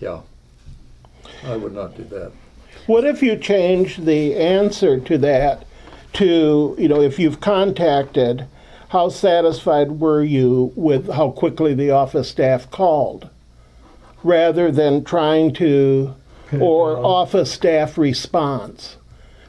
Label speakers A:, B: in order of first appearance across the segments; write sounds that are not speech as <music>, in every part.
A: Yeah. I would not do that.
B: What if you change the answer to that to, you know, if you've contacted, how satisfied were you with how quickly the office staff called? Rather than trying to, or office staff response.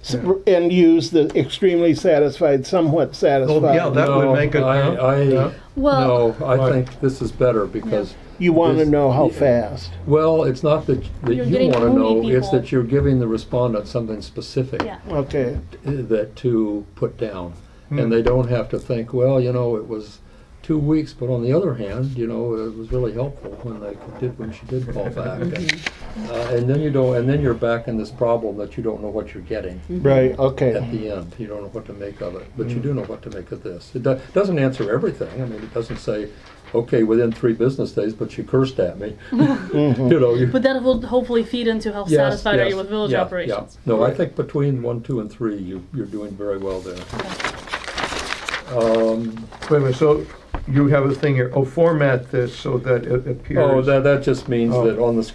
B: S- And use the extremely satisfied, somewhat satisfied.
C: Well, yeah, that
A: No,
C: would make it.
A: I, I,
D: Well-
A: no, I think this is better because,
B: You want to
A: This-
B: know
C: uh,
B: how fast.
A: well, it's not that, that
D: You're
A: you
D: getting
A: want to
D: only
A: know, it's
D: people.
A: that you're giving the respondent something specific eh,
D: Yeah.
B: Okay.
A: that to put down.
C: Hmm.
A: And they don't have to think, well, you know, it was two weeks, but on the other hand, you know, it was really helpful when they did, when she did fall back. And,
D: Mm-hmm.
A: uh, and then you don't, and then you're back in this problem that you don't know what you're getting.
D: Mm-hmm.
B: Right. Okay.
A: at the end. You don't know what to make of it, but you
D: Mm-hmm.
A: do know what to make of this. It do- doesn't answer everything. I mean, it doesn't say, okay, within three business days, but she cursed at
D: <laughs>
A: me. Mm-hmm. you know, you.
D: But that will hopefully feed into how
A: Yes,
D: satisfied are
A: yes,
D: you with village
A: yeah, yeah.
D: operations.
A: No, I think between one, two, and three, you, you're doing very well there.
C: Wait a minute, so you have a thing here, oh, format this so that it appears.
A: Oh, that, that just means
C: Oh,
A: that on the
C: right.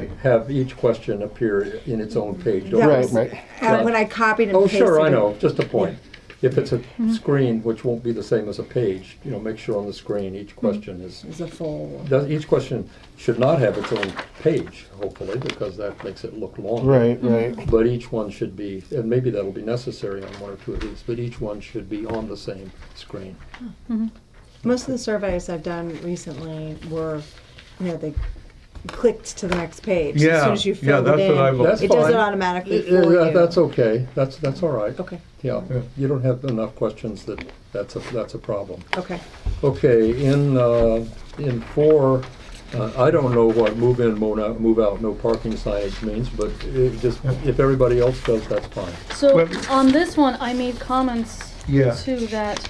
A: screen, have each question appear in its own page. Don't-
E: That
B: Right,
E: was-
B: right.
E: uh, When I copied and
A: Oh,
E: pasted.
A: sure, I
E: it.
A: know, just a point. If it's a
D: Mm-hmm.
A: screen, which won't be the same as a page, you know, make sure on the screen, each
D: Mm-hmm.
A: question is
E: It's a full.
A: Does- Each question should not have its own page, hopefully, because that makes it look long.
B: Right. Right.
A: But each one should be, and maybe that'll be necessary on one or two of these, but each one should be on the same screen.
E: Most of the surveys I've done recently were, you know, they clicked to the next page. As
C: Yeah,
E: soon as you
C: yeah,
E: filled
C: that's
E: it
C: what I've-
E: in,
A: That's
E: it does
A: fine.
E: it automatically
A: Eh, Yeah,
E: for you.
A: That's okay, that's, that's all right.
E: Okay,
A: Yeah, you don't have enough questions that, that's a, that's a problem.
E: okay.
A: Okay, in, uh, in four, uh, I don't know what move in, move out, move out, no parking signage means, but it just, if everybody else does, that's fine.
D: So
C: Well-
D: on this one, I made comments
C: Yeah.
D: to that.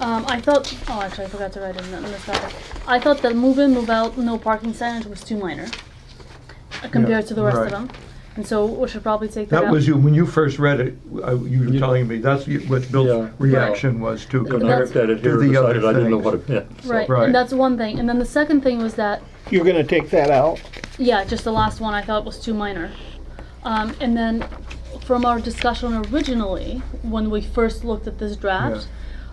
D: Um, I thought, oh, actually, I forgot to write it in, the- in this topic. I thought that move in, move out, no parking signage was too minor uh, compared to the rest
C: right.
D: of them. And so we should probably take that,
C: That
D: out.
C: was you, when you first read it, uh, you were telling me, that's you- what
A: Yeah.
C: Bill's reaction was to
A: When
C: compare
A: I
D: That's-
A: looked at it here,
C: To the other
A: decided I didn't know
C: things.
A: what it meant. so.
D: right.
C: Right.
D: And that's one thing. And then the second thing was that
B: You're going to take that out.
D: Yeah, just the last one I thought was too minor. Um, and then from our discussion originally, when we first looked at this draft,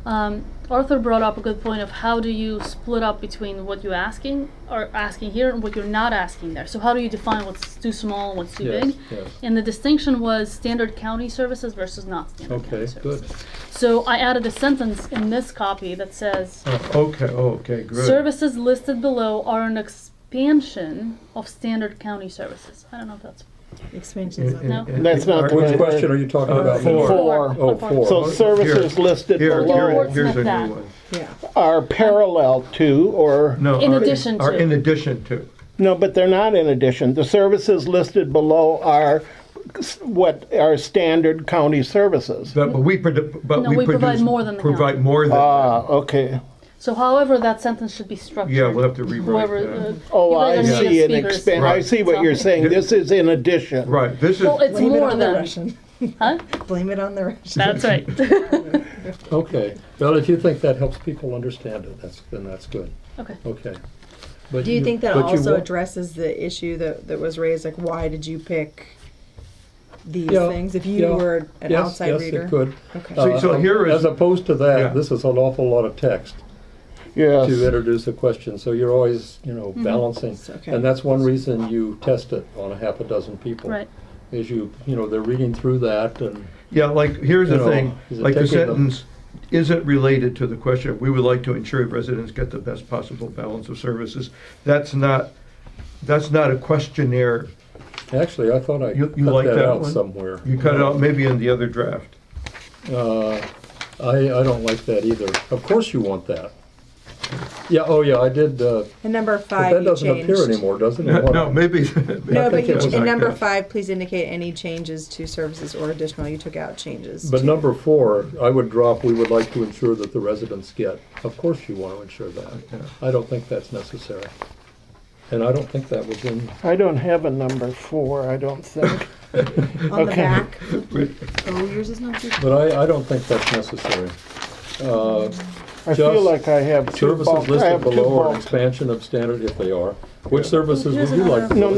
D: um, Arthur brought up a good point of how do you split up between what you're asking or asking here and what you're not asking there. So how do you define what's too small and what's too
A: Yes,
D: big?
A: yes.
D: And the distinction was standard county services versus not standard
A: Okay,
D: county services.
A: good.
D: So I added a sentence in this copy that says
C: Oh, Okay, oh, okay, good.
D: Services listed below are an expansion of standard county services. I don't know if that's
E: Expansions
C: In-
E: on
C: in-
D: No.
C: in-
B: That's not the
C: Or-
B: right-
A: Which question are you talking
C: Uh,
A: about?
C: four.
B: Four.
A: Oh, four.
B: So services listed
C: Here,
B: below
C: here,
D: Lord,
C: here's a
D: snip
C: new
D: that.
C: one.
E: yeah.
B: are parallel to or
C: No.
D: In
C: are-
D: addition
C: Are
D: to.
C: in addition to.
B: No, but they're not in addition. The services listed below are s- what are standard county services.
C: But but we, produ- but
D: No,
C: we
D: we provide
C: produce-
D: more than the
C: Provide
D: county.
C: more than, that.
B: Ah, okay.
D: so. However, that sentence should be structured.
C: yeah, we'll have to rewrite
D: Whoever,
C: that.
D: uh,
B: Oh,
D: you
B: I
D: guys are native
B: see an
D: speakers.
B: expand, I see what you're saying. This is in addition.
C: Right, this is,
D: Well, it's
E: Blame it
D: more
E: on the
D: than.
E: Russian. <laughs>
D: Huh?
E: Blame it on the Russian.
D: That's right.
A: Okay, well, if you think that helps people understand it, that's, then that's good,
D: <laughs> okay.
A: okay. But
E: Do you think that
A: but you
E: also
A: wa-
E: addresses the issue that, that was raised, like why did you pick these
A: Yeah,
E: things if you
A: yeah,
E: were an
A: yes,
E: outside
A: yes,
E: reader?
A: it could.
E: Okay.
C: So-
A: Uh,
C: so here is-
A: As opposed to
C: Yeah.
A: that, this is an awful lot of text to
B: Yes.
A: introduce a question, so you're always, you know, balancing.
E: Mm-hmm. okay.
A: And that's one reason you test it on a half a dozen people.
D: Right.
A: Is you, you know, they're reading through that and,
C: yeah, like, here's
A: You
C: the
A: know,
C: thing,
A: is it
C: like the
A: taking them-
C: sentence, isn't related to the question, we would like to ensure residents get the best possible balance of services. That's not, that's not a questionnaire
A: actually, I thought I
C: You-
A: cut
C: you like
A: that
C: that
A: out
C: one?
A: somewhere.
C: You cut it out maybe in the other draft.
A: Uh, I, I don't like that either. Of course you want that. Yeah, oh yeah, I did, uh,
E: And number
A: but
E: five,
A: that
E: you
A: doesn't appear
E: changed.
A: anymore, doesn't
C: <laughs>
A: it?
C: No, maybe. <laughs>
E: No, but
A: think
E: you,
A: it was
E: in
A: like
E: number
C: that.
E: five, please indicate any changes to services or additional. You took out changes.
A: But
E: to-
A: number four, I would drop, we would like to ensure that the residents get. Of course you want to ensure that. I don't think that's necessary. And I don't think that was in,
B: I don't have a number four, I don't think.
E: on the
B: okay.
E: back. Oh, yours is not.
A: but I, I don't think that's necessary. Uh,
B: I feel
A: Just
B: like I have two
A: Services
B: bulk, I
A: listed
B: have two
A: below are an
B: bulk.
A: expansion of standard if they are. Which services would
D: Here's
A: you like?
D: another-
A: to
B: No,